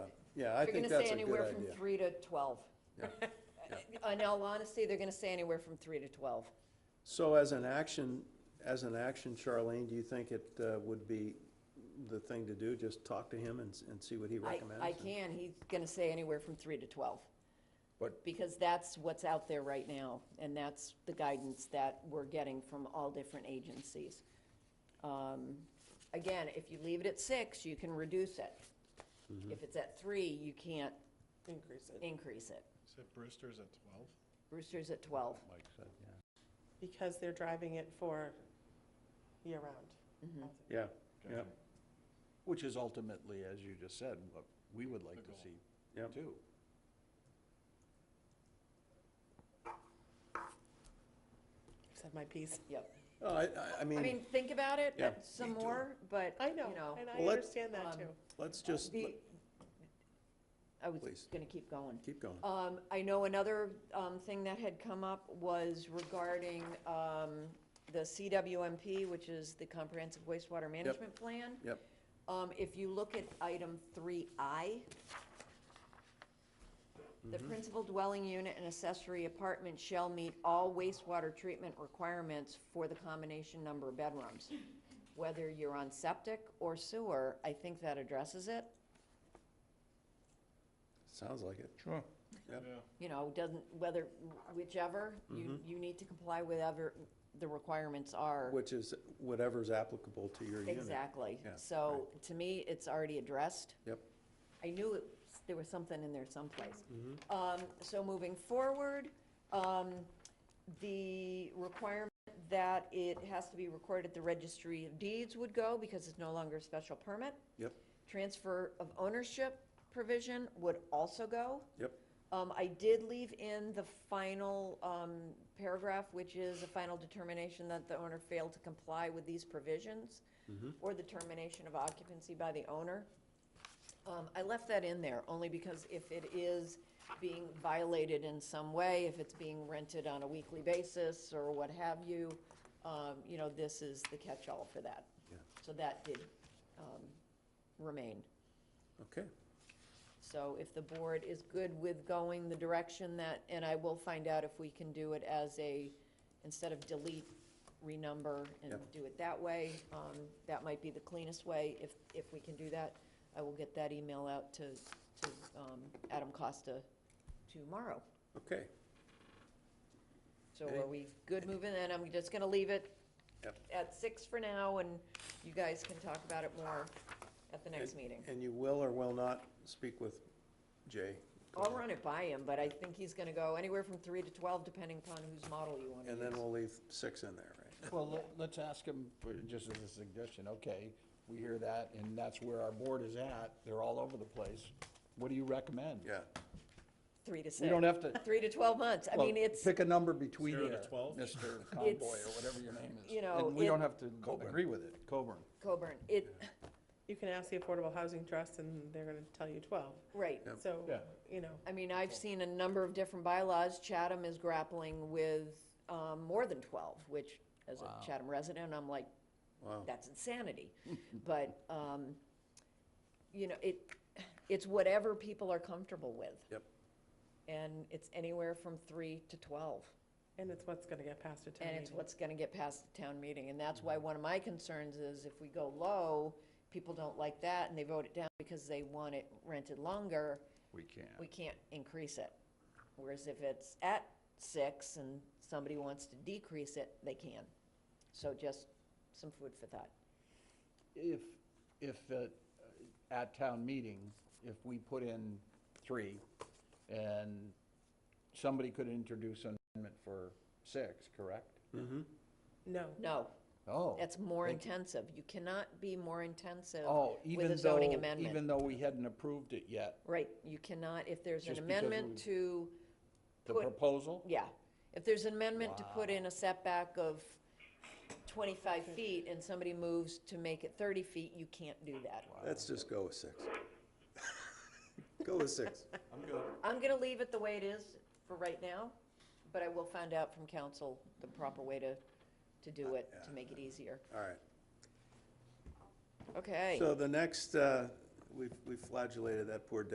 Yeah, I They're think gonna say that's a good anywhere from idea. three to twelve. Yeah. In all honesty, they're gonna say anywhere from three to twelve. So as an action, as an action, Charlene, do you think it uh, would be the thing to do, just talk to him and, s- and see what he I, recommends? I can, he's gonna say anywhere from three to twelve. But- Because that's what's out there right now, and that's the guidance that we're getting from all different agencies. Um, Again, if you leave it at six, you can reduce it. Mm-hmm. If it's at three, you can't increase it. increase it. Said Brewster's at twelve? Brewster's at twelve. Because they're driving it for Mm-hmm. year-round. Yeah, yeah, Which is ultimately, as you just said, what we would like to see yeah. too. Said my piece. Yep. Oh, I, I- I I mean, mean, think about it Yeah. but some more, but, I you know, know. and I Well, let- understand that um, too. let's just, the- I was Please. gonna keep going. keep going. Um, I know another, um, thing that had come up was regarding, um, the CWMP, which is the Comprehensive Wastewater Management Plan. Yep, Um, if you look at item three I, the Mm-hmm. principal dwelling unit and accessory apartment shall meet all wastewater treatment requirements for the combination number of bedrooms. Whether you're on septic or sewer, I think that addresses it. sounds like it. Sure. Yep. Yeah. you know, doesn't, whether, whichever, Mm-hmm. you, you need to comply with whatever the requirements are. Which is whatever's applicable to your unit. Exactly. Yeah, So, to me, it's already addressed. Yep, I knew it, there was something in there someplace. Mm-hmm. Um, so moving forward, um, the requirement that it has to be recorded at the registry of deeds would go because it's no longer a special permit. yep, Transfer of ownership provision would also go. yep, Um, I did leave in the final, um, paragraph, which is a final determination that the owner failed to comply with these provisions or the termination of occupancy by the owner. Um, I left that in there only because if it is being violated in some way, if it's being rented on a weekly basis or what have you, um, you know, this is the catch-all for that. Yeah. So that did, um, remain. okay. So if the board is good with going the direction that, and I will find out if we can do it as a, instead of delete, renumber and Yep. do it that way, um, that might be the cleanest way. If, if we can do that, I will get that email out to, to, um, Adam Costa tomorrow. Okay, So Okay. are we good moving? And I'm just gonna leave it Yep. at six for now and you guys can talk about it more at the next meeting. and you will or will not speak with Jay? I'll run it by him, but I think he's gonna go anywhere from three to twelve, depending upon whose model you wanna use. And then we'll leave six in there, right? Well, let- let's ask him, for- just as a suggestion, okay, we hear that, and that's where our board is at, they're all over the place. What do you recommend? Yeah. Three to six. We don't have to, Three to twelve months, I well, mean, it's, pick a number between Zero to there, 12? Mr. Conboy, or whatever your name is. you know, And we don't it- have to agree with it, Coburn. Coburn, it, You can ask the Affordable Housing Trust and they're gonna tell you twelve. right. So, Yeah. you know, I mean, I've seen a number of different bylaws, Chatham is grappling with, um, more than twelve, which, as a Chatham resident, I'm like, Wow. that's insanity. But, um, you know, it, it's whatever people are comfortable with. Yep. And it's anywhere from three to twelve. and it's what's gonna get passed at town And it's meeting. what's gonna get past the town meeting, and that's Mm-hmm. why one of my concerns is if we go low, people don't like that, and they vote it down because they want it rented longer, We can't. we can't increase it. Whereas if it's at six and somebody wants to decrease it, they can. So just some food for thought. If, if, uh, at town meeting, if we put in three, and somebody could introduce an amendment for six, correct? No, No, Oh. that's more thank you. intensive, you cannot be more intensive Oh, with a even zoning though, amendment. even though we hadn't approved it yet, Right, you cannot, if there's an Just because amendment we- to. the Put- proposal? Yeah, if there's an amendment to put in a setback of twenty-five feet and somebody moves to make it thirty feet, you can't do that. Let's just go with six. Go with six. I'm gonna leave it the way it is for right now, but I will find out from council the proper way to, to do it, to make it easier. All right. Okay. So the next, uh, we've we've flagellated that poor